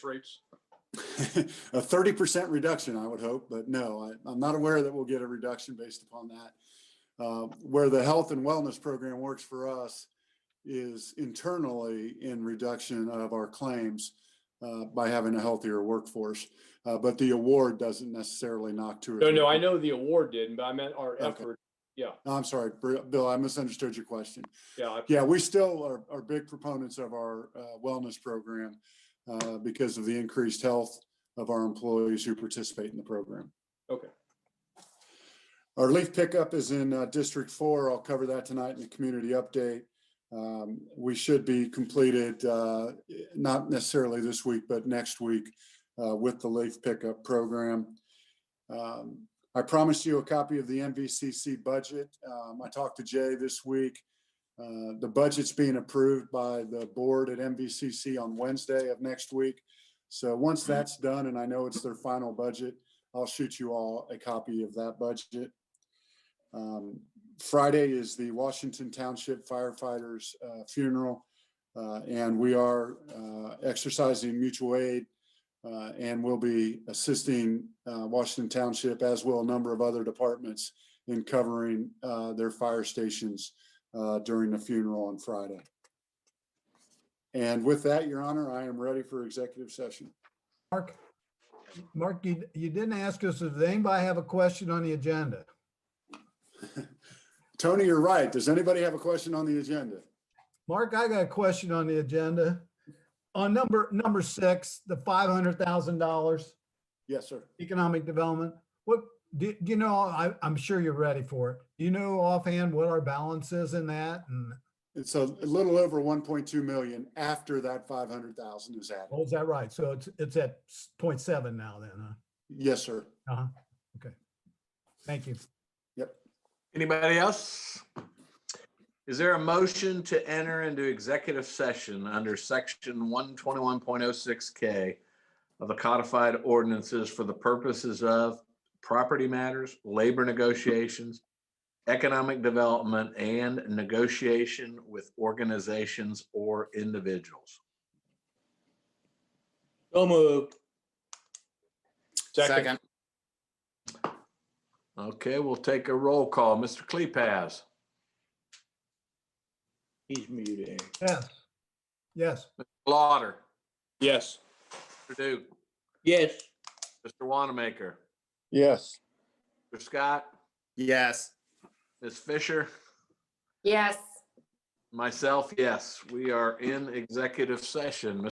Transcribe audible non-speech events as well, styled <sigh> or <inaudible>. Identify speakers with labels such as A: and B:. A: rates?
B: <laughs> a thirty percent reduction, I would hope, but no, I, I'm not aware that we'll get a reduction based upon that. Uh, where the health and wellness program works for us is internally in reduction of our claims uh, by having a healthier workforce, uh, but the award doesn't necessarily knock two or.
A: No, no,
B: three-
A: I know the award didn't, but I meant our
B: Okay.
A: effort. Yeah,
B: I'm sorry, Br- Bill, I misunderstood your question.
A: yeah, I-
B: Yeah, we still are, are big proponents of our uh, wellness program uh, because of the increased health of our employees who participate in the program.
A: Okay.
B: Our leaf pickup is in uh, District Four. I'll cover that tonight in the community update. Um, We should be completed, uh, not necessarily this week, but next week uh, with the leaf pickup program. Um, I promised you a copy of the MVCC budget. Um, I talked to Jay this week. Uh, The budget's being approved by the board at MVCC on Wednesday of next week. So once that's done, and I know it's their final budget, I'll shoot you all a copy of that budget. Um, Friday is the Washington Township firefighters uh, funeral. uh, And we are uh, exercising mutual aid uh, and will be assisting uh, Washington Township as will a number of other departments in covering uh, their fire stations uh, during the funeral on Friday. And with that, Your Honor, I am ready for executive session.
C: Mark, Mark, you, you didn't ask us, does anybody have a question on the agenda?
B: Tony, you're right. Does anybody have a question on the agenda?
C: Mark, I got a question on the agenda. On number, number six, the five hundred thousand dollars
B: Yes, sir.
C: economic development. What, do, do you know, I, I'm sure you're ready for it. Do you know offhand what our balance is in that? And,
B: It's a little over 1.2 million after that 500,000 is added.
C: oh, is that right? So it's, it's at 0.7 now then, huh?
B: Yes, sir.
C: Thank you.
D: Anybody else? Is there a motion to enter into executive session under section one twenty-one point oh six K of the codified ordinances for the purposes of property matters, labor negotiations, economic development, and negotiation with organizations or individuals?
A: So moved. Second,
D: Okay, we'll take a roll call. Mr. Kleipas,
E: He's muted.
C: Yes. Yes.
D: Lauder,
A: yes.
D: Mr. Duke,
E: Yes.
D: Mr. Wanamaker,
B: Yes.
D: Mr. Scott,
E: Yes.
D: Ms. Fisher.
F: Yes.
D: Myself, yes. We are in executive session.